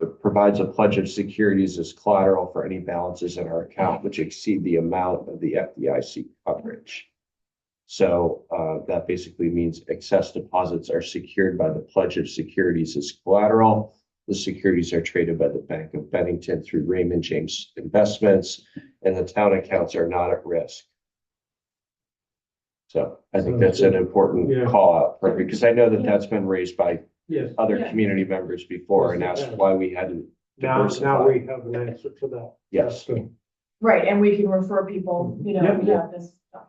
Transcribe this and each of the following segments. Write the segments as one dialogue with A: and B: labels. A: but provides a pledge of securities as collateral for any balances in our account which exceed the amount of the FDIC coverage. So uh, that basically means excess deposits are secured by the pledge of securities as collateral. The securities are traded by the Bank of Bennington through Raymond James Investments, and the town accounts are not at risk. So I think that's an
B: Yeah.
A: important call out, for- because I know that that's been raised by
B: Yes,
A: other
C: Yeah.
A: community members before and
B: Yes, it
A: asked
B: has.
A: why we hadn't,
B: now,
A: Diversify.
B: now we have an answer to that.
A: yes.
B: That's good.
C: Right, and we can refer people, you know,
B: Yeah.
C: we have this. stuff.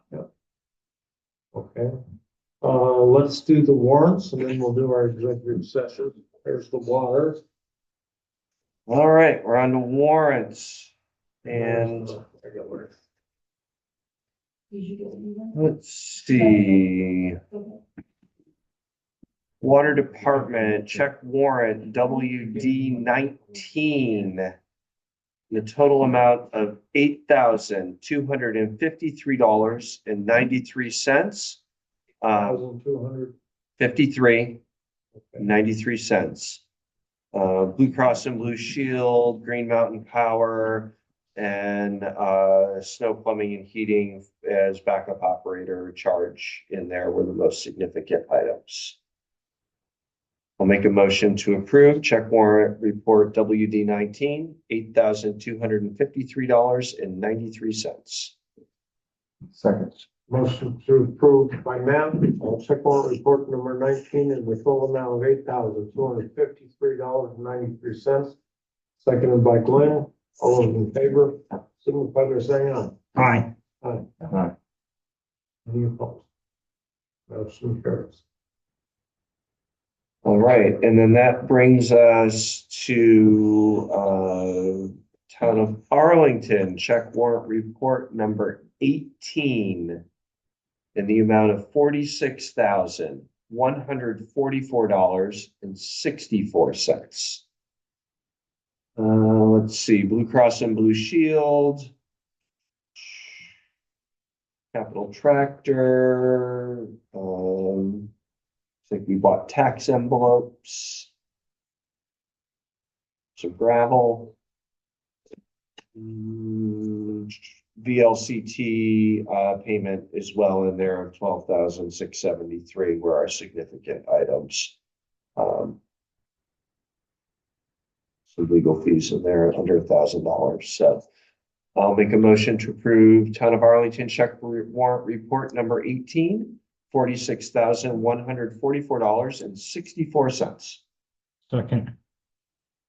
B: Okay. Uh, let's do the warrants and then we'll do our executive session. There's the water.
A: All right, we're on to warrants. And
C: Did you get it?
A: let's see,
C: Okay.
A: Water Department, check warrant WD nineteen. The total amount of eight thousand two hundred and fifty-three dollars and ninety-three cents. Uh,
B: Thousand two hundred.
A: fifty-three ninety-three cents. Uh, Blue Cross and Blue Shield, Green Mountain Power, and, uh, Snow Plumbing and Heating as backup operator charge in there were the most significant items. I'll make a motion to approve check warrant report WD nineteen, eight thousand two hundred and fifty-three dollars and ninety-three cents.
B: Second. Motion to approve by Matt on check warrant report number nineteen in the total amount of eight thousand two hundred fifty-three dollars and ninety-three cents. Seconded by Glenn. All those in favor, signify by saying aye.
A: Aye.
B: Aye.
A: Aye.
B: Any opposed? Motion carries.
A: All right, and then that brings us to uh Town of Arlington, check warrant report number eighteen. In the amount of forty-six thousand, one hundred forty-four dollars and sixty-four cents. Uh, let's see, Blue Cross and Blue Shield. Capital Tractor, um. I think we bought tax envelopes. Some gravel. Mm, VLCT uh payment as well in there of twelve thousand six seventy-three were our significant items. Um. Some legal fees in there under a thousand dollars, so. I'll make a motion to approve Town of Arlington check re- warrant report number eighteen forty-six thousand one hundred forty-four dollars and sixty-four cents.
D: Second,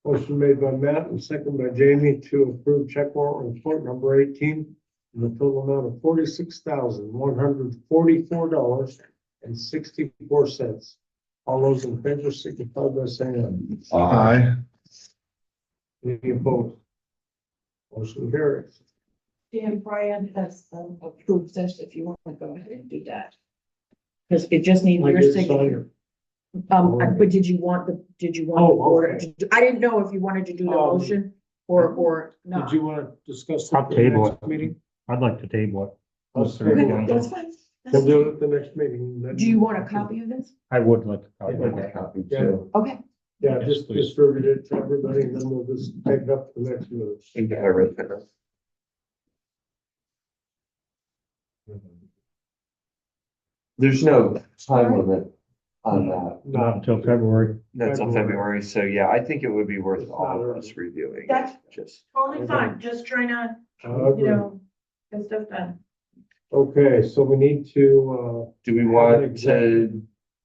B: Motion made by Matt and second by Jamie to approve check warrant report number eighteen in the total amount of forty-six thousand, one hundred forty-four dollars and sixty-four cents. All those in favor signify by saying
E: Aye.
B: aye. Any opposed? Motion carries.
C: Dan Brian has um, approved this, if you want to go ahead and do that. Because it just needs
B: I
C: your
B: did sign
C: signature.
B: it.
C: Um, I- but did you want the, did you want?
B: Oh,
C: the board
B: okay.
C: to- I didn't know if you wanted to do the
B: Um,
C: motion or, or not.
B: Did you want to discuss?
D: I'll
B: it at the
D: table
B: next
D: it.
B: Meeting?
D: I'd like to table it.
B: Let's
D: Mr.
B: table it.
D: Glenn.
C: That's fine. That's
B: We'll do it
C: fine.
B: at the next meeting. then-
C: Do you want a copy of this?
D: I would like. to
B: I'd like a
D: table
A: Copy
B: too.
C: Okay,
B: Yeah, just distribute it to everybody and then we'll just pick it up the next move.
A: think I read that. There's no time limit on that.
D: Not
B: Not,
D: until February.
A: That's on February, so yeah, I think it would be worth all of us reviewing.
C: That's-
A: Just,
C: totally fine, just trying to,
B: I
C: you
B: agree.
C: know, get stuff done.
B: Okay, so we need to,
A: do we want to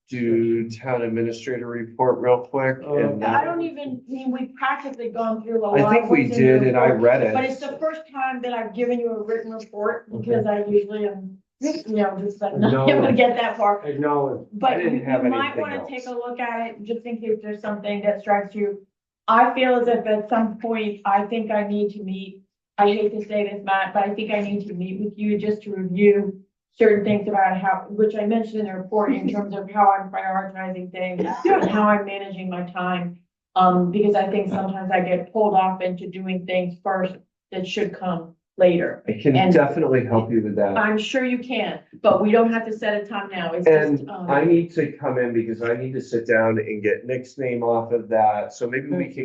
A: do town administrator report real quick? and
C: I don't even, I mean, we've practically gone through a lot.
A: I think
C: of
A: we
C: what's in your
A: did and I
C: report,
A: read
C: But it's
A: it.
C: the first time that I've given you a written report because I usually am, you know, just like not able to get that far.
B: uh, acknowledge.
A: I
C: But you
A: didn't
C: you
A: have
C: might
A: anything
C: want
A: else.
C: to take a look at it, just in case there's something that strikes you. I feel as if at some point, I think I need to meet, I hate to say this, Matt, but I think I need to meet with you just to review certain things about how, which I mentioned in the report in terms of how I'm prioritizing things, and how I'm managing my time. Um, because I think sometimes I get pulled off into doing things first that should come later.
A: I can
C: And-
A: definitely help you with that.
C: I'm sure you can, but we don't have to set a time now. It's just,
A: And
C: um.
A: I need to come in because I need to sit down and get Nick's name off of that. So maybe we can